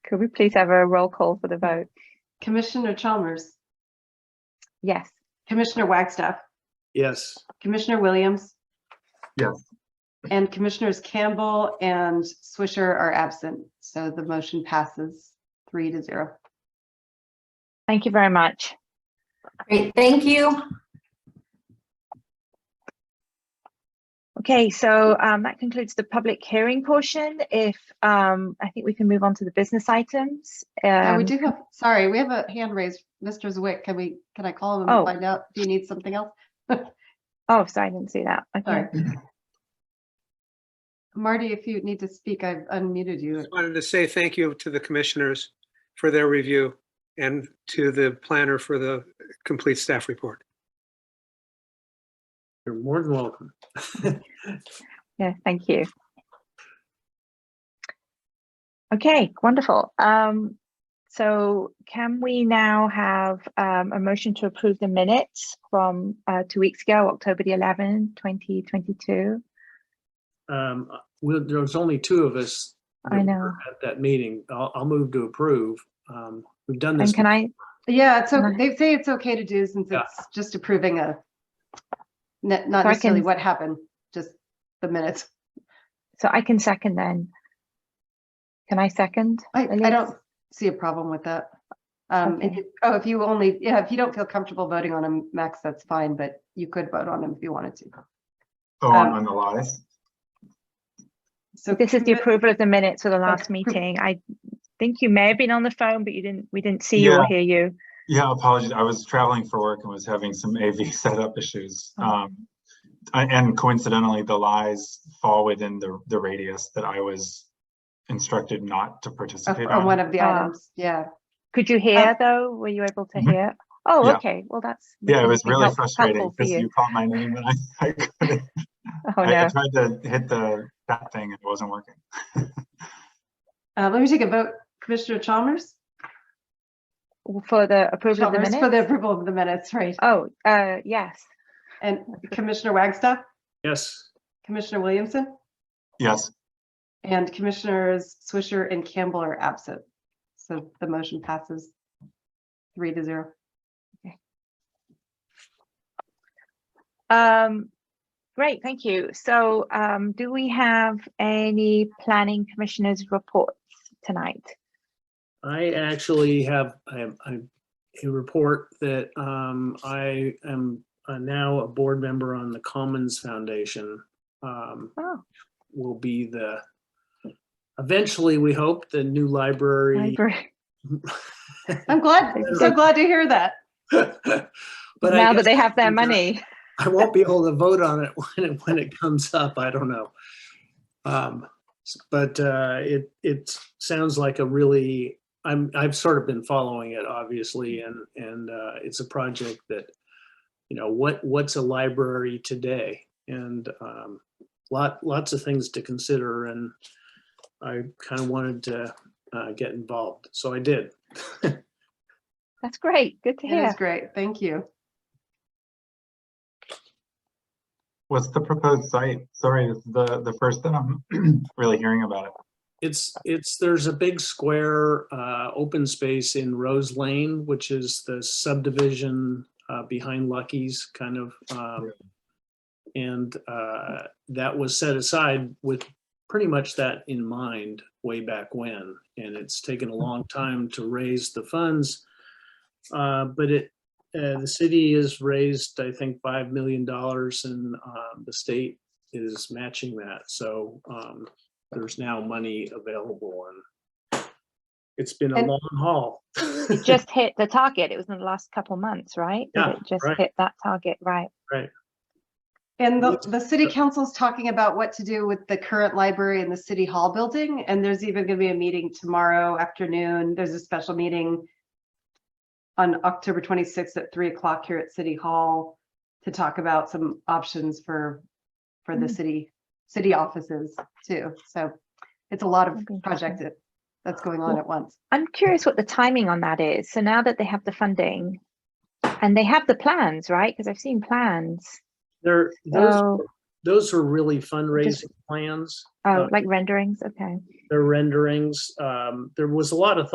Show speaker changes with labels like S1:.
S1: Could we please have a roll call for the vote?
S2: Commissioner Chalmers,
S1: Yes.
S2: Commissioner Wagstaff,
S3: Yes.
S2: Commissioner Williams.
S3: Yes.
S2: And Commissioners Campbell and Swisher are absent, so the motion passes three to zero.
S1: Thank you very much.
S4: Great, thank you.
S1: Okay, so um, that concludes the public hearing portion. If um, I think we can move on to the business items.
S2: Uh, we
S1: Um,
S2: do have, sorry, we have a hand raised. Mr. Zwick, can we, can I call him
S1: Oh.
S2: and find out? Do you need something else?
S1: Oh, sorry, I didn't see that. Okay.
S2: Sorry. Marty, if you need to speak, I've unmuted you.
S5: Just wanted to say thank you to the commissioners for their review and to the planner for the complete staff report.
S3: You're more than welcome.
S1: Yeah, thank you. Okay, wonderful. Um, so can we now have um, a motion to approve the minutes from uh, two weeks ago, October the 11th, 2022?
S3: Um, we'll, there was only two of us.
S1: I
S3: that
S1: know.
S3: were At that meeting. I'll, I'll move to approve. Um, we've done this.
S1: And can I,
S2: Yeah, it's, o-
S1: Right.
S2: they say it's okay to do since
S3: Yeah.
S2: it's just approving a, not not
S1: So I
S2: necessarily
S1: can-
S2: what happened, just the minutes.
S1: so I can second then. Can I second?
S2: I, I
S1: Elise?
S2: don't see a problem with that. Um, if
S1: Okay.
S2: you- oh, if you only, yeah, if you don't feel comfortable voting on him, Max, that's fine, but you could vote on him if you wanted to.
S6: Oh, on,
S2: Um,
S6: on the last,
S2: So
S1: This is the
S2: commi-
S1: approval of the minutes for the last
S2: Okay.
S1: meeting. I think you may have been on the phone, but you didn't, we didn't see you or
S6: Yeah.
S1: hear you.
S6: yeah, apologies. I was traveling for work and was having some AV setup issues.
S1: Oh.
S6: Um, I- and coincidentally, the lies fall within the, the radius that I was instructed not to
S2: of-
S6: participate
S2: on one
S6: on.
S2: of the
S1: Ah.
S2: items, yeah.
S1: Could you
S3: Um,
S1: hear though? Were you able to
S6: Mhm.
S1: hear? Oh,
S6: Yeah.
S1: okay. Well, that's.
S6: Yeah, it was
S1: must be
S6: really
S1: help-
S6: frustrating
S1: helpful for
S6: because
S1: you.
S6: you called my name and I, I couldn't.
S1: Oh,
S6: I I
S1: no.
S6: tried to hit the, that thing and it wasn't working.
S2: Uh, let me take a vote. Commissioner Chalmers?
S1: For the approval of the
S2: Chalmers for the
S1: minutes?
S2: approval of the minutes, right?
S1: Oh, uh, yes.
S2: And Commissioner Wagstaff,
S3: Yes,
S2: Commissioner Williamson,
S6: Yes,
S2: and Commissioners Swisher and Campbell are absent. So the motion passes three to zero.
S1: Um, great, thank you. So, um, do we have any planning commissioners reports tonight?
S3: I actually have, I have, I have a report that, um, I am uh, now a board member on the Commons Foundation. Um,
S1: Oh,
S3: will be the, eventually, we hope, the new library.
S1: library.
S2: I'm glad,
S1: Thank
S2: I'm
S1: you.
S2: so glad to hear that.
S3: But I
S1: Now that
S3: guess-
S1: they have their
S3: Yeah.
S1: money.
S3: I won't be able to vote on it when it, when it comes up. I don't know. Um, s- but, uh, it, it sounds like a really, I'm, I've sort of been following it obviously and, and, uh, it's a project that, you know, what, what's a library today? And, um, lot, lots of things to consider and I kind of wanted to, uh, get involved. So I did.
S1: That's great. Good to
S2: It
S1: hear.
S2: is great. Thank you.
S6: what's the proposed site? Sorry, this is the, the first that I'm really hearing about it.
S3: It's, it's, there's a big square, uh, open space in Rose Lane, which is the subdivision, uh, behind Lucky's kind of, um, and, uh, that was set aside with pretty much that in mind way back when. And it's taken a long time to raise the funds. Uh, but it, uh, the city has raised, I think, five million dollars and, um, the state is matching that. So, um, there's now money available and it's been a
S2: And-
S3: long haul.
S1: It just hit the target. It was in the last couple months, right? That
S3: Yeah,
S1: It just
S3: right.
S1: hit that target, right?
S2: And the,
S3: Yes.
S2: the city council's talking about what to do with the current library and the city hall building, and there's even gonna be a meeting tomorrow afternoon. There's a special meeting on October twenty-sixth at three o'clock here at City Hall to talk about some options for, for the
S1: Mm.
S2: city, city offices too. So it's a lot of
S1: That'd be
S2: project
S1: interesting.
S2: that- that's going on
S1: Well,
S2: at once.
S1: I'm curious what the timing on that is. So now that they have the funding and they have the plans, right? Because I've seen plans.
S3: There, there's
S1: So
S3: those are really fundraising plans.
S1: Oh,
S3: Uh,
S1: like renderings, okay.
S3: They're renderings. Um, there was a lot of